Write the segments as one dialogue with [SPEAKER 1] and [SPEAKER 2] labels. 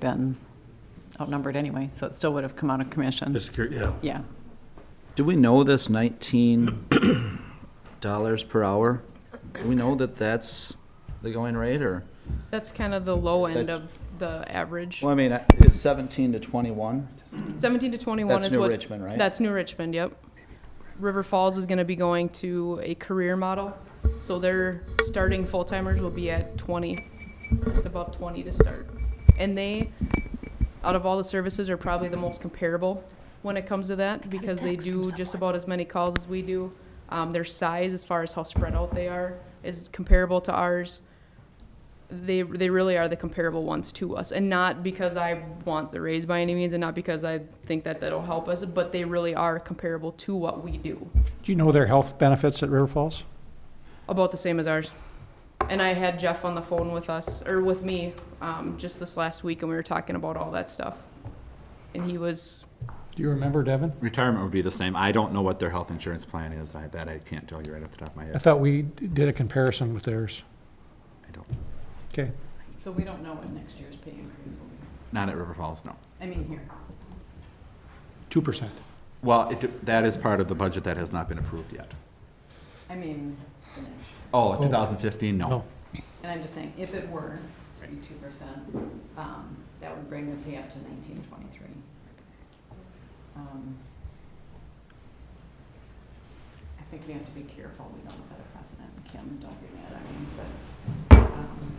[SPEAKER 1] been outnumbered anyway, so it still would have come out of commission.
[SPEAKER 2] Just curious, yeah.
[SPEAKER 1] Yeah,
[SPEAKER 3] Do we know this nineteen dollars per hour? Do we know that that's the going rate or?
[SPEAKER 4] That's kind of the low end
[SPEAKER 3] That's-
[SPEAKER 4] of the average.
[SPEAKER 3] Well, I mean, it's seventeen to twenty-one.
[SPEAKER 4] 17 to 21
[SPEAKER 3] That's
[SPEAKER 4] is
[SPEAKER 3] New
[SPEAKER 4] what.
[SPEAKER 3] Richmond, right?
[SPEAKER 4] That's New Richmond, yep. River Falls is going to be going to a career model. So their starting full timers will be at 20, just above 20 to start. And they, out of all the services, are probably the most comparable when it comes to that because they do just about as many calls as we do. Um, their size, as far as how spread out they are, is comparable to ours. they they really are the comparable ones to us and not because i want the raise by any means and not because i think that that'll help us but they really are comparable to what we do
[SPEAKER 5] Do you know their health benefits at River Falls?
[SPEAKER 4] about the same as ours and i had jeff on the phone with us or with me um, just this last week and we were talking about all that stuff and he was
[SPEAKER 5] Do you remember, Devin?
[SPEAKER 6] Retirement would be the same. I don't know what their health insurance plan is. I- That I can't tell you right off the top of my
[SPEAKER 5] I
[SPEAKER 6] head.
[SPEAKER 5] thought we did a comparison with theirs.
[SPEAKER 6] I don't,
[SPEAKER 5] Okay.
[SPEAKER 1] so we don't know what next year's pay increase will be.
[SPEAKER 6] not at River Falls, no.
[SPEAKER 1] I mean, here.
[SPEAKER 5] Two percent.
[SPEAKER 6] Well, it, that is part of the budget that has not been approved yet.
[SPEAKER 1] I mean, the next
[SPEAKER 6] Oh, 2015, no.
[SPEAKER 1] And I'm just saying, if it were to be two percent, um, that would bring the pay up to nineteen twenty-three. Um, I think we have to be careful, we don't set a precedent, Kim, don't be mad at me, but, um.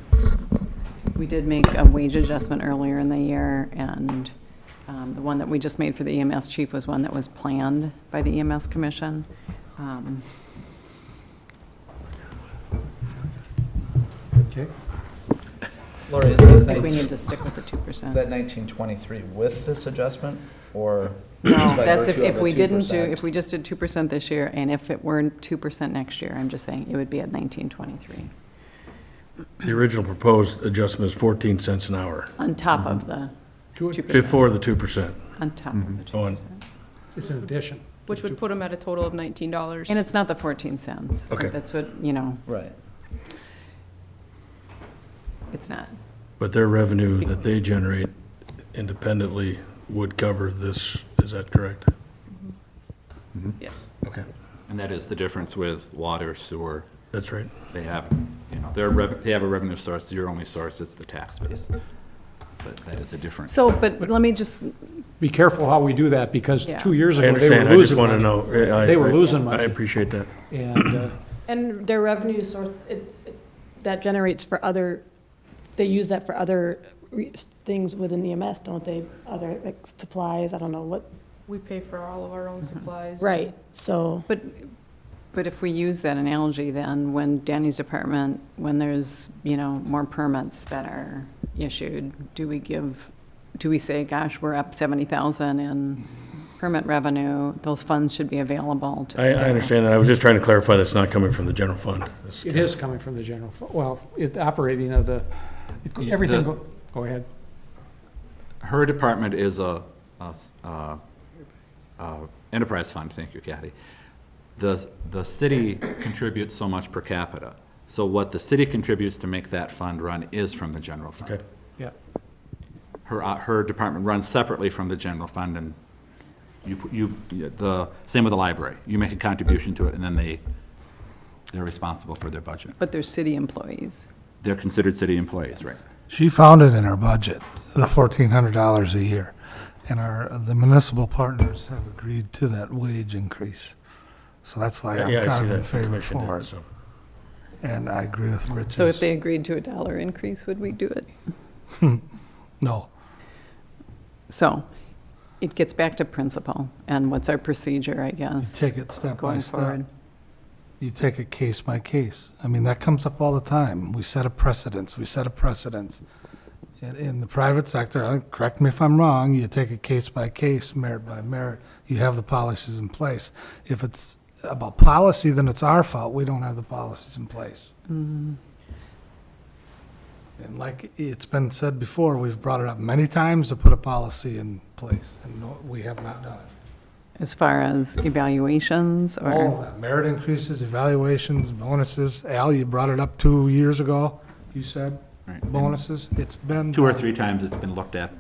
[SPEAKER 1] We did make a wage adjustment earlier in the year, and, um, the one that we just made for the EMS chief was one that was planned by the EMS commission. Um,
[SPEAKER 5] Okay.
[SPEAKER 3] Lori, is
[SPEAKER 1] I
[SPEAKER 3] this
[SPEAKER 1] think we
[SPEAKER 3] nineteen-
[SPEAKER 1] need to stick with the two percent.
[SPEAKER 3] is that nineteen twenty-three with this adjustment or?
[SPEAKER 1] No, that's if, if we didn't do, if we just did two percent this year, and if it weren't two percent next year, I'm just saying, it would be at nineteen twenty-three,
[SPEAKER 2] The original proposed adjustment is 14 cents an hour,
[SPEAKER 1] on top of the two
[SPEAKER 5] Good.
[SPEAKER 1] percent.
[SPEAKER 2] before the 2%.
[SPEAKER 1] On top of the two
[SPEAKER 2] So on-
[SPEAKER 1] percent.
[SPEAKER 5] It's an addition.
[SPEAKER 4] which would put him at a total of $19
[SPEAKER 1] And it's not the fourteen cents.
[SPEAKER 2] Okay.
[SPEAKER 1] That's what, you know,
[SPEAKER 3] Right.
[SPEAKER 1] it's not.
[SPEAKER 2] But their revenue that they generate independently would cover this, is that correct?
[SPEAKER 4] yes
[SPEAKER 2] Okay.
[SPEAKER 6] And that is the difference with water, sewer.
[SPEAKER 2] That's right.
[SPEAKER 6] They have, you know, their rev, they have a revenue source. Your only source is the tax base. But that is a difference.
[SPEAKER 1] So, but let me just,
[SPEAKER 5] Be careful how we do that because
[SPEAKER 1] Yeah.
[SPEAKER 5] two years
[SPEAKER 2] I
[SPEAKER 5] ago, they were
[SPEAKER 2] understand, I just
[SPEAKER 5] losing
[SPEAKER 2] want to
[SPEAKER 5] money.
[SPEAKER 2] know. I- I-
[SPEAKER 5] They were
[SPEAKER 2] I-
[SPEAKER 5] losing money.
[SPEAKER 2] I appreciate that.
[SPEAKER 5] And uh,
[SPEAKER 7] And their revenue source, it, it- that generates for other, they use that for other re- things within EMS, don't they? Other, like supplies, I don't know what,
[SPEAKER 4] we pay for all of our own
[SPEAKER 1] Mm-hmm.
[SPEAKER 4] supplies
[SPEAKER 7] right, so.
[SPEAKER 1] but, but if we use that analogy, then when Danny's department, when there's, you know, more permits that are issued, do we give, do we say, gosh, we're up seventy thousand in permit revenue, those funds should be available to
[SPEAKER 2] I, I
[SPEAKER 1] staff.
[SPEAKER 2] understand that. I was just trying to clarify that's not coming from the general fund. It's-
[SPEAKER 5] it is coming from the general, fu- well, it operating of the, it go-
[SPEAKER 6] Yeah,
[SPEAKER 5] everything,
[SPEAKER 6] the-
[SPEAKER 5] go go ahead.
[SPEAKER 6] her department is a, a s- uh, uh, enterprise fund, thank you Kathy. The, the city contributes so much per capita. So what the city contributes to make that fund run is from the general fund.
[SPEAKER 2] Okay.
[SPEAKER 5] Yeah.
[SPEAKER 6] Her, uh, her department runs separately from the general fund and you, pu- you, the, same with the library. You make a contribution to it and then they, they're responsible for their budget.
[SPEAKER 1] But they're city employees.
[SPEAKER 6] They're considered city employees, right?
[SPEAKER 8] She found it in her budget, the fourteen hundred dollars a year, and our, the municipal partners have agreed to that wage increase. So that's why I'm
[SPEAKER 2] Yeah, I see
[SPEAKER 8] kind of
[SPEAKER 2] that.
[SPEAKER 8] in
[SPEAKER 2] the
[SPEAKER 8] favor
[SPEAKER 2] Commission
[SPEAKER 8] for
[SPEAKER 2] did,
[SPEAKER 8] it,
[SPEAKER 2] so.
[SPEAKER 8] and I agree with Rich's.
[SPEAKER 1] So if they agreed to a dollar increase, would we do it?
[SPEAKER 8] No,
[SPEAKER 1] So it gets back to principle and what's our procedure, I guess,
[SPEAKER 8] take it step by
[SPEAKER 1] going
[SPEAKER 8] step.
[SPEAKER 1] forward.
[SPEAKER 8] You take it case by case. I mean, that comes up all the time. We set a precedence, we set a precedence. In, in the private sector, uh, correct me if I'm wrong, you take it case by case, merit by merit. You have the policies in place. If it's about policy, then it's our fault. We don't have the policies in place. And like it's been said before, we've brought it up many times to put a policy in place, and no- we have not done it.
[SPEAKER 1] As far as evaluations
[SPEAKER 8] All of
[SPEAKER 1] or,
[SPEAKER 8] that, merit increases, evaluations, bonuses. Al, you brought it up two years ago, you said.
[SPEAKER 6] Right.
[SPEAKER 8] bonuses. It's been
[SPEAKER 6] Two or
[SPEAKER 8] done.
[SPEAKER 6] three times it's been looked at